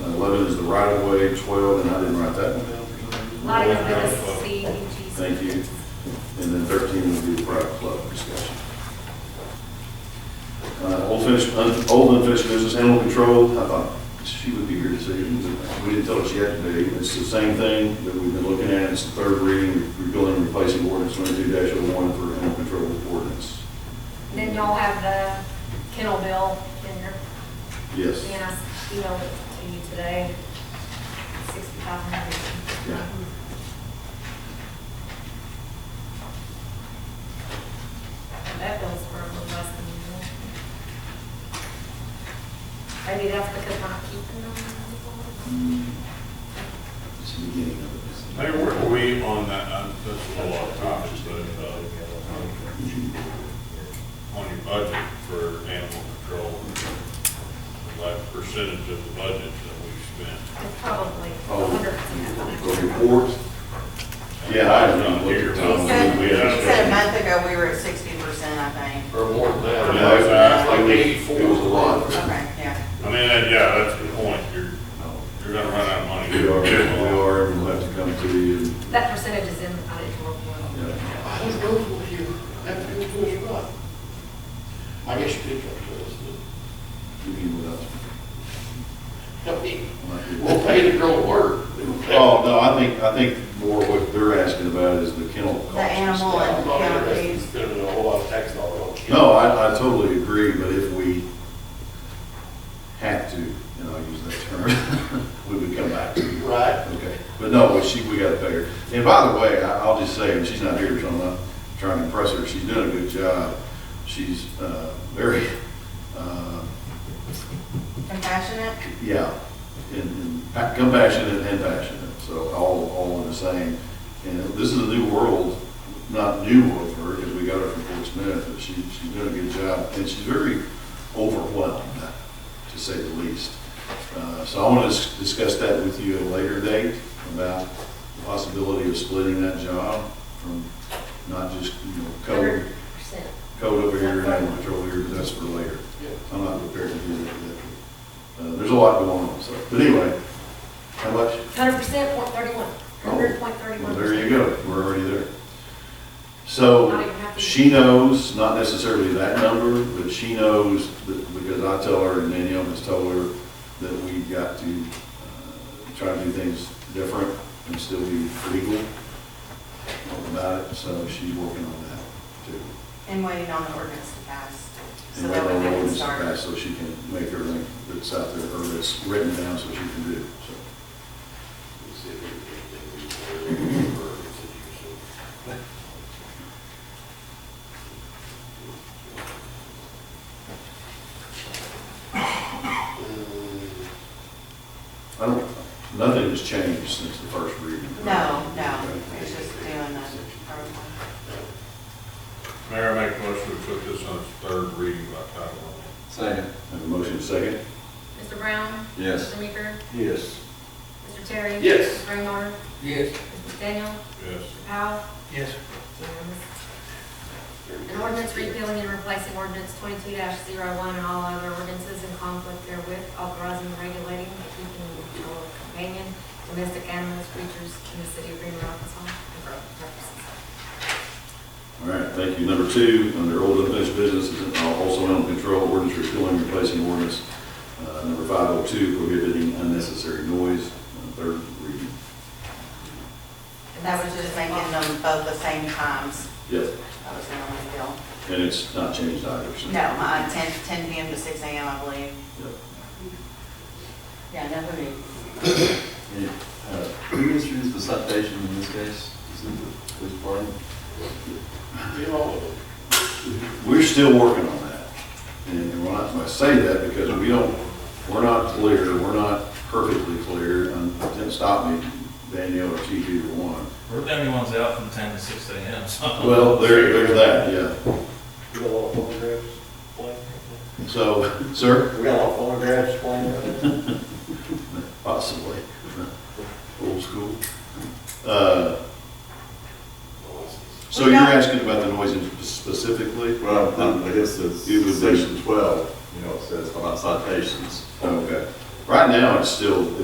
Eleven is the right of way, twelve, and I didn't write that one down. A lot of it's with a C, G. Thank you. And then thirteen would be the private club discussion. Uh, old finished, un- old unfinished business, animal control, I thought she would be here this evening, but we didn't tell her she had to be. It's the same thing that we've been looking at, it's the third reading, rebuilding and replacing ordinance twenty-two dash oh one for animal control ordinance. Then y'all have the kennel bill in your, Yes. and I emailed it to you today. Sixty thousand. Yeah. That bill's for a little less than usual. Maybe that's because we're not keeping them. It's the beginning of Mayor, where are we on that, uh, that's a lot of times, but, uh, on your budget for animal control, like percentage of the budget that we spent? It's probably Oh. a hundred percent. it. The report? Yeah, I I'm haven't not looked here. at He Tom. said, We he had- said a month ago, we were at sixty percent, I think. Or more than that. Yeah, it's like- Like eighty-four. It was a lot. Okay, yeah. I mean, that- yeah, that's the point, you're, you're gonna run out of money. We are, we are, and we'll have to come to you. and- uh, That percentage is in, I didn't work well. yeah. I was going for you, that feels good, you're right. I guess you did come to us, You mean without- but, I mean, might be- we'll pay the girl to work. Oh, no, I think, I think more what they're asking about is the kennel costs. The animal I'm and not county interested in fees. spending a whole lot of tax dollars on kids. No, I, I totally agree, but if we had to, and I'll use that term, we would come back to you. Right? Okay, but no, but she, we gotta pay her. And by the way, I, I'll just say, and she's not here, so I'm not trying to impress her, she's doing a good job. She's, uh, very, uh, Compassionate? Yeah, and, and pa- compassionate and passionate, so all, all in the same. And this is a new world, not new world for her, because we got her from Fort Smith, but she, she's doing a good job, and she's very overwhelmed, to say the least. Uh, so I want to discuss that with you at a later date, about the possibility of splitting that job from not just, you know, code, Hundred percent. code over here and animal control here, but that's for later. Yeah. I'm not prepared to do that yet. Uh, there's a lot going on, so, but anyway, how much? Hundred percent, point thirty-one. Hundred point thirty-one. Well, there you go, we're already there. Not So, even half the- she knows, not necessarily that number, but she knows that, because I tell her and Danielle has told her that we've got to, uh, try to do things different and still be legal about it, so she's working on that too. And waiting on the ordinance to pass. So And that way we wait on the can ordinance to start. pass So she can make everything that's out there, or that's written down, so she can do, so. See if we can get anything we can do for our institution. Mm. I don't, nothing has changed since the first reading. No, no, it's just doing the, PowerPoint. Mayor, I make a motion to put this on its third reading by title only. Second. Have a motion second? Mr. Brown? Yes. Mr. Meeker? Yes. Mr. Terry? Yes. Mr. Raymar? Yes. Mr. Daniel? Yes. Mr. Powell? Yes. Unanimous. An ordinance repealing and replacing ordinance twenty-two one and all other ordinances in conflict therewith, authorizing and regulating the keeping and control of companion domestic animals, creatures in the city of Greenwood, Arkansas, and for other purposes. All right, thank you. Number two, under old unfinished business, is also animal control ordinance repealing and replacing ordinance, uh, number five oh two, prohibiting unnecessary noise, uh, third reading. And that was just making them both the same times. Yes, That was the only deal. and it's not changed either, so. No, uh, ten, ten PM to six AM, I believe. Yep. Yeah, no hurry. Who uh, issues the citation in this case? Is it the police department? You know, We're still working on that. And when I, when I say that, because we don't, we're not clear, we're not perfectly clear, and don't stop me, Danielle or Chief either one. We're the only ones out from ten to six AM, so. Well, there, there's that, yeah. We got a lot of photographs playing. So, sir, We got a lot of photographs playing. possibly, old school. Uh, So you're asking about the noise specifically? Well, I- I guess it's It would be- section twelve, you know, it says about citations. Okay. Right now, it's still,